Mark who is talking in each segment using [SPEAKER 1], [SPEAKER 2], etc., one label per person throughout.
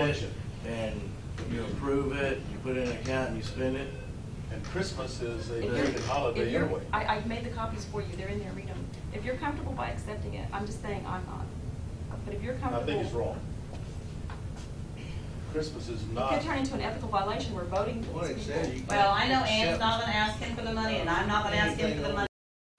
[SPEAKER 1] session, and you approve it, you put it in an account, and you spend it.
[SPEAKER 2] And Christmas is a
[SPEAKER 3] If you're-
[SPEAKER 2] pagan holiday
[SPEAKER 3] if you're-
[SPEAKER 2] anyway.
[SPEAKER 3] I, I've made the copies for you, they're in there, read them. If you're comfortable by accepting it, I'm just saying I'm not. But if you're
[SPEAKER 2] I
[SPEAKER 3] comfortable.
[SPEAKER 2] think it's wrong. Christmas is
[SPEAKER 3] It
[SPEAKER 2] not.
[SPEAKER 3] could turn into an ethical violation, we're voting for
[SPEAKER 4] Well, it
[SPEAKER 3] these
[SPEAKER 4] says
[SPEAKER 3] people.
[SPEAKER 4] you-
[SPEAKER 5] Well, I know Ann's not gonna ask him for the money, and I'm not gonna ask him for the money,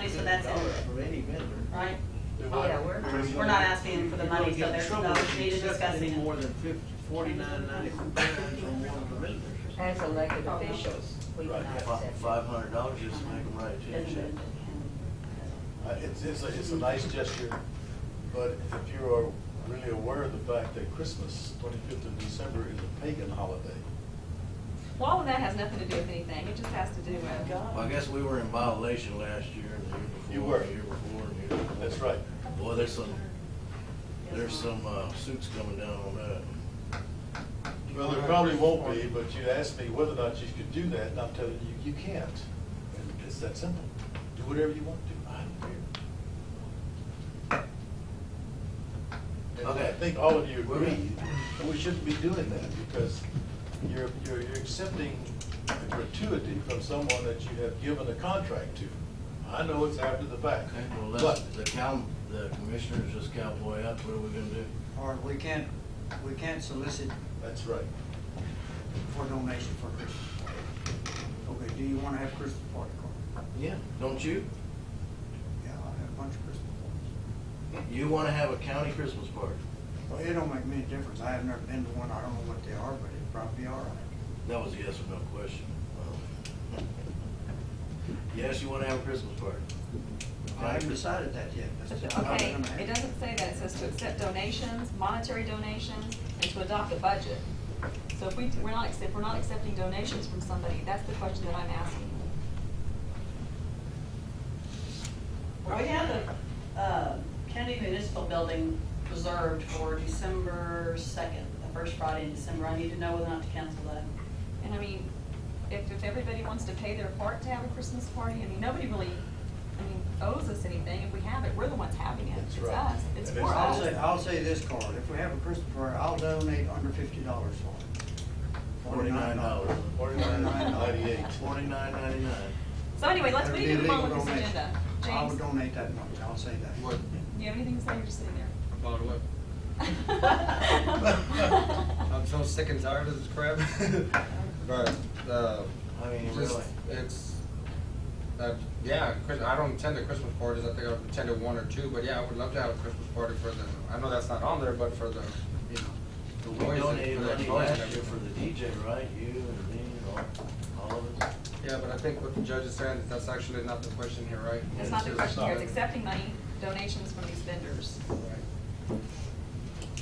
[SPEAKER 5] so that's it,
[SPEAKER 4] From any vendor.
[SPEAKER 5] right?
[SPEAKER 2] Do what?
[SPEAKER 5] Yeah, we're,
[SPEAKER 2] Christmas.
[SPEAKER 5] we're not asking him for the money, so there's no need of discussing
[SPEAKER 4] More
[SPEAKER 5] it.
[SPEAKER 4] than fifty, forty-nine ninety-five from one of the vendors.
[SPEAKER 6] As elected officials, we
[SPEAKER 2] Right,
[SPEAKER 6] cannot accept. it.
[SPEAKER 1] Five hundred dollars, just to make them write a check.
[SPEAKER 5] Doesn't-
[SPEAKER 2] Uh, It's, it's, a- it's a nice gesture, but if you are really aware of the fact that Christmas, twenty-fifth of December, is a pagan holiday.
[SPEAKER 3] Well, all of that has nothing to do with anything, it just has to do
[SPEAKER 4] Oh,
[SPEAKER 3] with.
[SPEAKER 1] Well, I guess we were in violation last year, and the
[SPEAKER 2] You
[SPEAKER 1] year before,
[SPEAKER 2] were.
[SPEAKER 1] and the year before, and the year before.
[SPEAKER 2] That's right.
[SPEAKER 1] Boy, there's some, there's some uh, suits coming down on that.
[SPEAKER 2] Well, there probably won't be, but you asked me whether or not you could do that, and I'm telling you, you can't. And it's that simple. Do whatever you want to. I don't care. And I
[SPEAKER 1] Okay.
[SPEAKER 2] think all of you agree that we shouldn't be doing that because you're, you're, you're accepting a gratuity from someone that you have given a contract to. I know it's after the fact,
[SPEAKER 1] Okay, well,
[SPEAKER 2] but
[SPEAKER 1] let's, the cow, the commissioners just cowboy up, what are we gonna do?
[SPEAKER 7] Or we can't, we can't solicit
[SPEAKER 2] that's right.
[SPEAKER 7] for donation for Christmas party. Okay, do you wanna have Christmas party card?
[SPEAKER 1] Yeah. Don't you?
[SPEAKER 7] Yeah, I'll have a bunch of Christmas parties.
[SPEAKER 1] You wanna have a county Christmas party?
[SPEAKER 7] Well, it don't make any difference, I have never been to one, I don't know what they are, but it'd probably be all right.
[SPEAKER 1] That was a yes or no question. Um, Yes, you wanna have a Christmas party?
[SPEAKER 7] I haven't decided that yet, that's. I'm not
[SPEAKER 3] Okay,
[SPEAKER 7] gonna have
[SPEAKER 3] it doesn't say that, it says to accept donations, monetary donations, and to adopt a budget. So if we, we're not, accept- if we're not accepting donations from somebody, that's the question that I'm asking.
[SPEAKER 5] Well, we have the, uh, Kennedy Municipal Building reserved for December second, the first Friday in December, I need to know whether or not to cancel that.
[SPEAKER 3] And I mean, if, if everybody wants to pay their part to have a Christmas party, I mean, nobody really, I mean, owes us anything. If we have it, we're the ones having it.
[SPEAKER 2] That's
[SPEAKER 3] It's
[SPEAKER 2] right.
[SPEAKER 3] us. It's
[SPEAKER 2] And
[SPEAKER 3] for
[SPEAKER 2] it's
[SPEAKER 7] I'll
[SPEAKER 3] us.
[SPEAKER 7] say, I'll say this, Carl, if we have a Christmas party, I'll donate under fifty dollars for it.
[SPEAKER 1] Forty-nine dollars.
[SPEAKER 2] Forty-nine ninety-eight.
[SPEAKER 1] Forty-nine ninety-nine.
[SPEAKER 3] So anyway, let's, we need to move on with this
[SPEAKER 7] That'd be a legal
[SPEAKER 3] agenda.
[SPEAKER 7] donation. I would
[SPEAKER 3] James, do
[SPEAKER 7] donate that much, I'll say that.
[SPEAKER 4] What,
[SPEAKER 3] you have anything to say? You're just sitting there.
[SPEAKER 4] by the way, I'm so sick and tired of this crap. But, uh,
[SPEAKER 1] I mean,
[SPEAKER 4] just,
[SPEAKER 1] really.
[SPEAKER 4] it's, uh, yeah, Chris, I don't attend the Christmas parties, I think I've attended one or two, but yeah, I would love to have a Christmas party for the, I know that's not on there, but for the, you know, the
[SPEAKER 1] We
[SPEAKER 4] boys. and
[SPEAKER 1] donated
[SPEAKER 4] for the
[SPEAKER 1] money
[SPEAKER 4] boys and
[SPEAKER 1] last year
[SPEAKER 4] everything.
[SPEAKER 1] for the DJ, right? You and me and all, all of us.
[SPEAKER 4] Yeah, but I think what the judge is saying, that's actually not the question here, right?
[SPEAKER 3] That's not the
[SPEAKER 4] It's
[SPEAKER 3] question here. It's
[SPEAKER 4] just-
[SPEAKER 3] accepting money, donations from these vendors.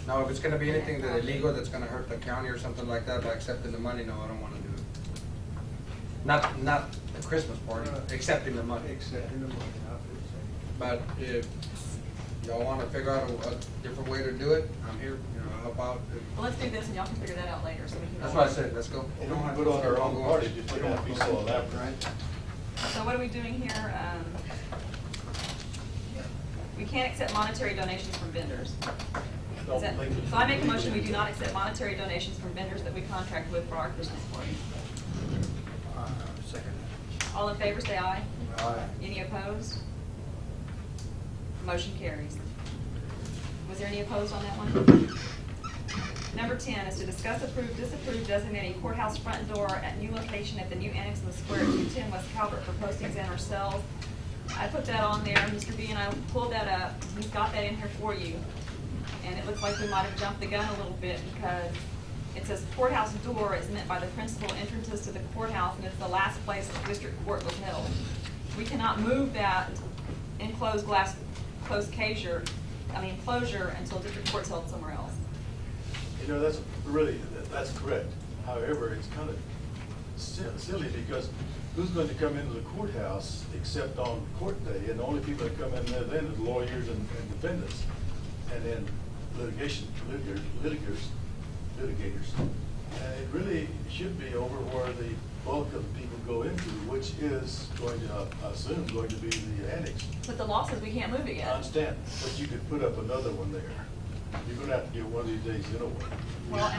[SPEAKER 4] Now, if it's gonna be anything that illegal, that's gonna hurt the county or something like that, by accepting the money, no, I don't wanna do it. Not, not the Christmas party, accepting the money.
[SPEAKER 7] Accepting the money, I would say.
[SPEAKER 4] But if y'all wanna figure out a, a different way to do it, I'm here, you know, I'll help out.
[SPEAKER 3] Well, let's do this and y'all can figure that out later so we can. go
[SPEAKER 4] That's
[SPEAKER 3] on.
[SPEAKER 4] what I said, let's go.
[SPEAKER 2] We can put on our own party, just don't have to be so elaborate.
[SPEAKER 3] So what are we doing here? Um, We can't accept monetary donations from vendors. Is that- So I make a motion, we do not accept monetary donations from vendors that we contract with for our Christmas party.
[SPEAKER 7] Uh, Second.
[SPEAKER 3] All in favor, say aye.
[SPEAKER 7] Aye.
[SPEAKER 3] Any opposed? Motion carries. Was there any opposed on that one? Number 10 is to discuss, approve, disapprove designating courthouse front door at new location at the new annex in the square at 210 West Calvert for postings and ourselves. I put that on there, Mr. B and I pulled that up, he's got that in here for you. And it looks like we might have jumped the gun a little bit because it says courthouse door is meant by the principal entrances to the courthouse and it's the last place the district court was held. We cannot move that enclosed glass, closed casure, I mean closure until district court's held somewhere else.
[SPEAKER 2] You know, that's really, that- that's correct. However, it's kind of si- silly because who's going to come into the courthouse except on court day? And the only people that come in there then is lawyers and and defendants. And then litigation, litigators, litigators, litigators. And it really should be over where the bulk of the people go into, which is going to, I assume, going to be the annex.
[SPEAKER 3] But the law says we can't move it
[SPEAKER 2] I
[SPEAKER 3] yet.
[SPEAKER 2] understand, but you could put up another one there. You're going to have to do it one of these days anyway.
[SPEAKER 3] Well, and